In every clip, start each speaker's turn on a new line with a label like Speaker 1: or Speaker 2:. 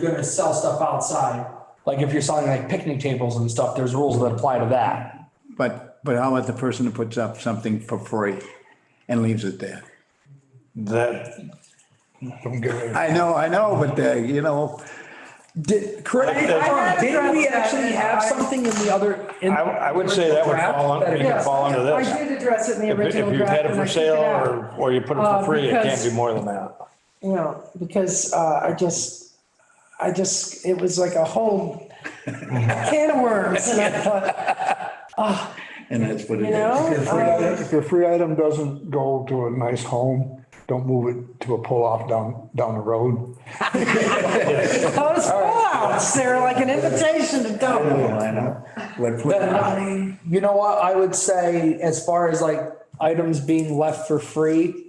Speaker 1: you're gonna sell stuff outside, like if you're selling like picnic tables and stuff, there's rules that apply to that.
Speaker 2: But, but how about the person who puts up something for free and leaves it there?
Speaker 3: That, I'm good.
Speaker 2: I know, I know, but, uh, you know,
Speaker 1: Did, correct, me if I'm wrong, didn't we actually have something in the other? in-
Speaker 3: I, I would say that would fall under, it could
Speaker 1: Yes.
Speaker 3: fall under
Speaker 4: I
Speaker 3: this.
Speaker 4: did address it in the
Speaker 3: If
Speaker 4: original
Speaker 3: if you
Speaker 4: draft.
Speaker 3: had it
Speaker 4: and I
Speaker 3: for
Speaker 4: took
Speaker 3: sale
Speaker 4: out.
Speaker 3: or, or you put it for
Speaker 4: Uh,
Speaker 3: free, it can't
Speaker 4: because-
Speaker 3: be more than that.
Speaker 4: You know, because uh, I just, I just, it was like a whole can of worms. And I thought,
Speaker 2: and that's what it
Speaker 4: You know?
Speaker 2: is.
Speaker 4: uh,
Speaker 5: If the free item doesn't go to a nice home, don't move it to a pull-off down, down the road.
Speaker 4: Those pullouts, they're like an invitation to
Speaker 2: Oh,
Speaker 4: dump.
Speaker 2: I know. What-
Speaker 1: Then,
Speaker 2: what-
Speaker 1: I- You know what, I would say as far as like items being left for free,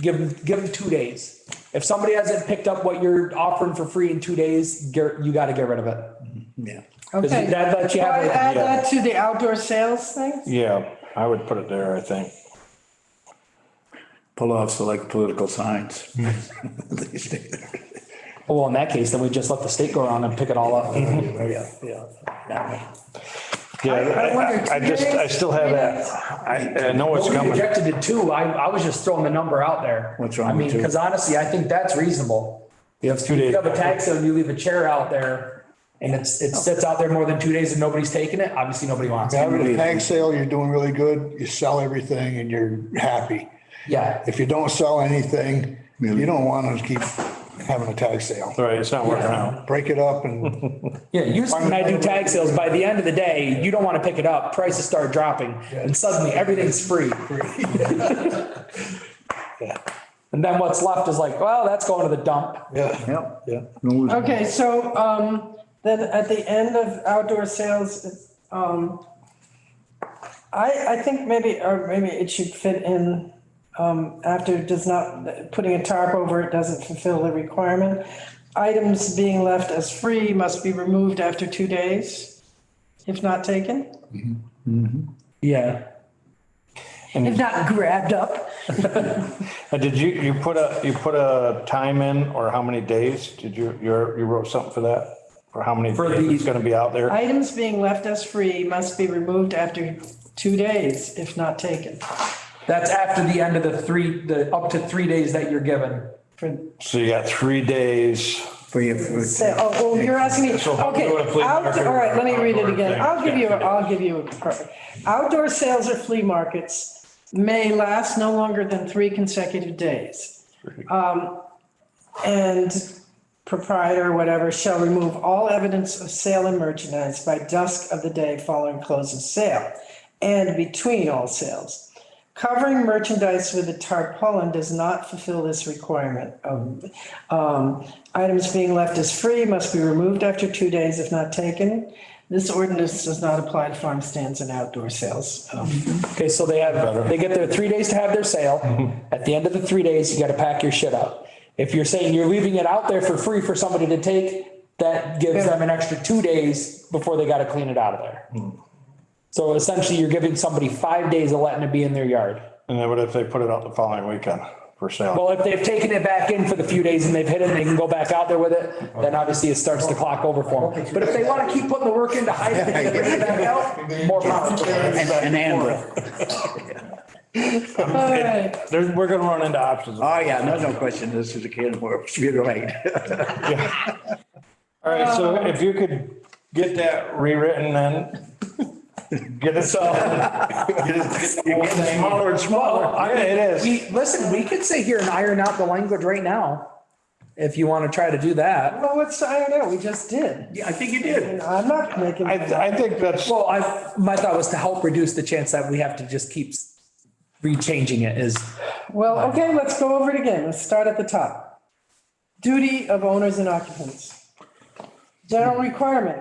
Speaker 1: give them, give them two days. If somebody hasn't picked up what you're offering for free in two days, get- you gotta get rid of it.
Speaker 2: Yeah.
Speaker 1: Cause
Speaker 4: Okay.
Speaker 1: that lets you
Speaker 4: Do
Speaker 1: have.
Speaker 4: I
Speaker 1: it.
Speaker 4: add that to the outdoor sales thing?
Speaker 3: Yeah, I would put it there, I think.
Speaker 2: Pull off select political signs.
Speaker 4: Mm-hmm.
Speaker 2: They stay there.
Speaker 1: Well, in that case, then we just let the state go around and pick it all up.
Speaker 2: Yeah, yeah. that way.
Speaker 3: Yeah,
Speaker 4: I wonder,
Speaker 3: I- I just, I still have that. I, I know it's
Speaker 1: Well, we
Speaker 3: coming.
Speaker 1: rejected it too. I, I was just throwing the number out there.
Speaker 2: What's wrong
Speaker 1: I mean,
Speaker 2: with two?
Speaker 1: because honestly, I think that's reasonable.
Speaker 3: You have two
Speaker 1: You
Speaker 3: days.
Speaker 1: have a tag sale, and you leave a chair out there and it's, it sits out there more than two days and nobody's taking it. Obviously, nobody wants it.
Speaker 5: Having a tag sale, you're doing really good, you sell everything and you're happy.
Speaker 1: Yeah.
Speaker 5: If you don't sell anything, you don't want to keep having a tag sale.
Speaker 3: Right, it's not working out.
Speaker 5: Break it up and
Speaker 1: Yeah. Usually when I do tag sales, by the end of the day, you don't want to pick it up. Prices start dropping and suddenly everything's free. And then what's left is like, well, that's going to the dump.
Speaker 2: Yep.
Speaker 3: Yeah.
Speaker 2: Lose-
Speaker 4: Okay, so um, then at the end of outdoor sales, um, I, I think maybe, or maybe it should fit in um, after it does not, putting a tarp over it doesn't fulfill the requirement. Items being left as free must be removed after two days, if not taken,
Speaker 1: Yeah.
Speaker 4: if not grabbed up.
Speaker 3: And did you, you put a, you put a time in or how many days? Did you, you're, you wrote something for that? For how many
Speaker 1: For
Speaker 3: days
Speaker 1: the-
Speaker 3: it's gonna be out there?
Speaker 4: Items being left as free must be removed after two days, if not taken.
Speaker 1: That's after the end of the three, the up to three days that you're given.
Speaker 4: For
Speaker 3: So you got three days.
Speaker 2: For your, for-
Speaker 4: So, oh, oh, you're asking me,
Speaker 3: So how do
Speaker 4: okay,
Speaker 3: you wanna play
Speaker 4: outdoor- all right, let me read it
Speaker 3: market
Speaker 4: again.
Speaker 3: thing?
Speaker 4: I'll give you, I'll give you, a perfect. Outdoor sales or flea markets may last no longer than three consecutive days. Um, and proprietor, whatever, shall remove all evidence of sale and merchandise by dusk of the day following close of sale and between all sales. Covering merchandise with a tarpaulin does not fulfill this requirement. Um, um, Items being left as free must be removed after two days if not taken. This ordinance does not apply to farm stands and outdoor sales. Um,
Speaker 1: Okay, so they have, they get their three days to have their sale. At the end of the three days, you gotta pack your shit up. If you're saying you're leaving it out there for free for somebody to take, that gives them an extra two days before they gotta clean it out of there. So essentially, you're giving somebody five days of letting it be in their yard.
Speaker 3: And then what if they put it out the following weekend for sale?
Speaker 1: Well, if they've taken it back in for the few days and they've hit it, and they can go back out there with it, then obviously it starts the clock over for them. But if they wanna keep putting the work into hiding it, and bringing it back out, more power. to them.
Speaker 2: and, and handle.
Speaker 3: There's- We're gonna run into options. All
Speaker 2: Oh, yeah, no, no question. This is a can of worms. You're right.
Speaker 3: right, so if you could get that rewritten then, get it so. You're getting smaller and smaller. Yeah, it is.
Speaker 1: We, listen, we could sit here and iron out the language right now, if you want to try to do that.
Speaker 4: Well, what's, I don't know, we just did.
Speaker 2: I think you did.
Speaker 4: I'm not making.
Speaker 3: I, I think that's,
Speaker 1: Well, I, my thought was to help reduce the chance that we have to just keep rechanging it is,
Speaker 4: Well, okay, let's go over it again. Let's start at the top. Duty of owners and occupants. General requirement,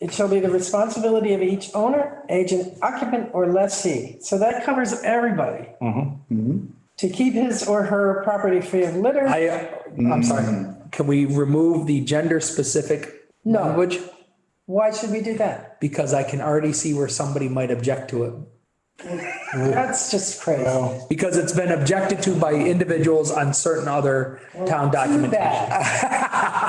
Speaker 4: it shall be the responsibility of each owner, agent, occupant, or lessee. So that covers everybody. To keep his or her property free of litter.
Speaker 1: I, I'm sorry,
Speaker 2: Mm.
Speaker 1: can we remove the gender specific
Speaker 4: No.
Speaker 1: language?
Speaker 4: Why should we do that?
Speaker 1: Because I can already see where somebody might object to it.
Speaker 4: That's just crazy.
Speaker 1: because it's been objected to by individuals on certain other town
Speaker 4: Too
Speaker 1: documentation.
Speaker 4: bad.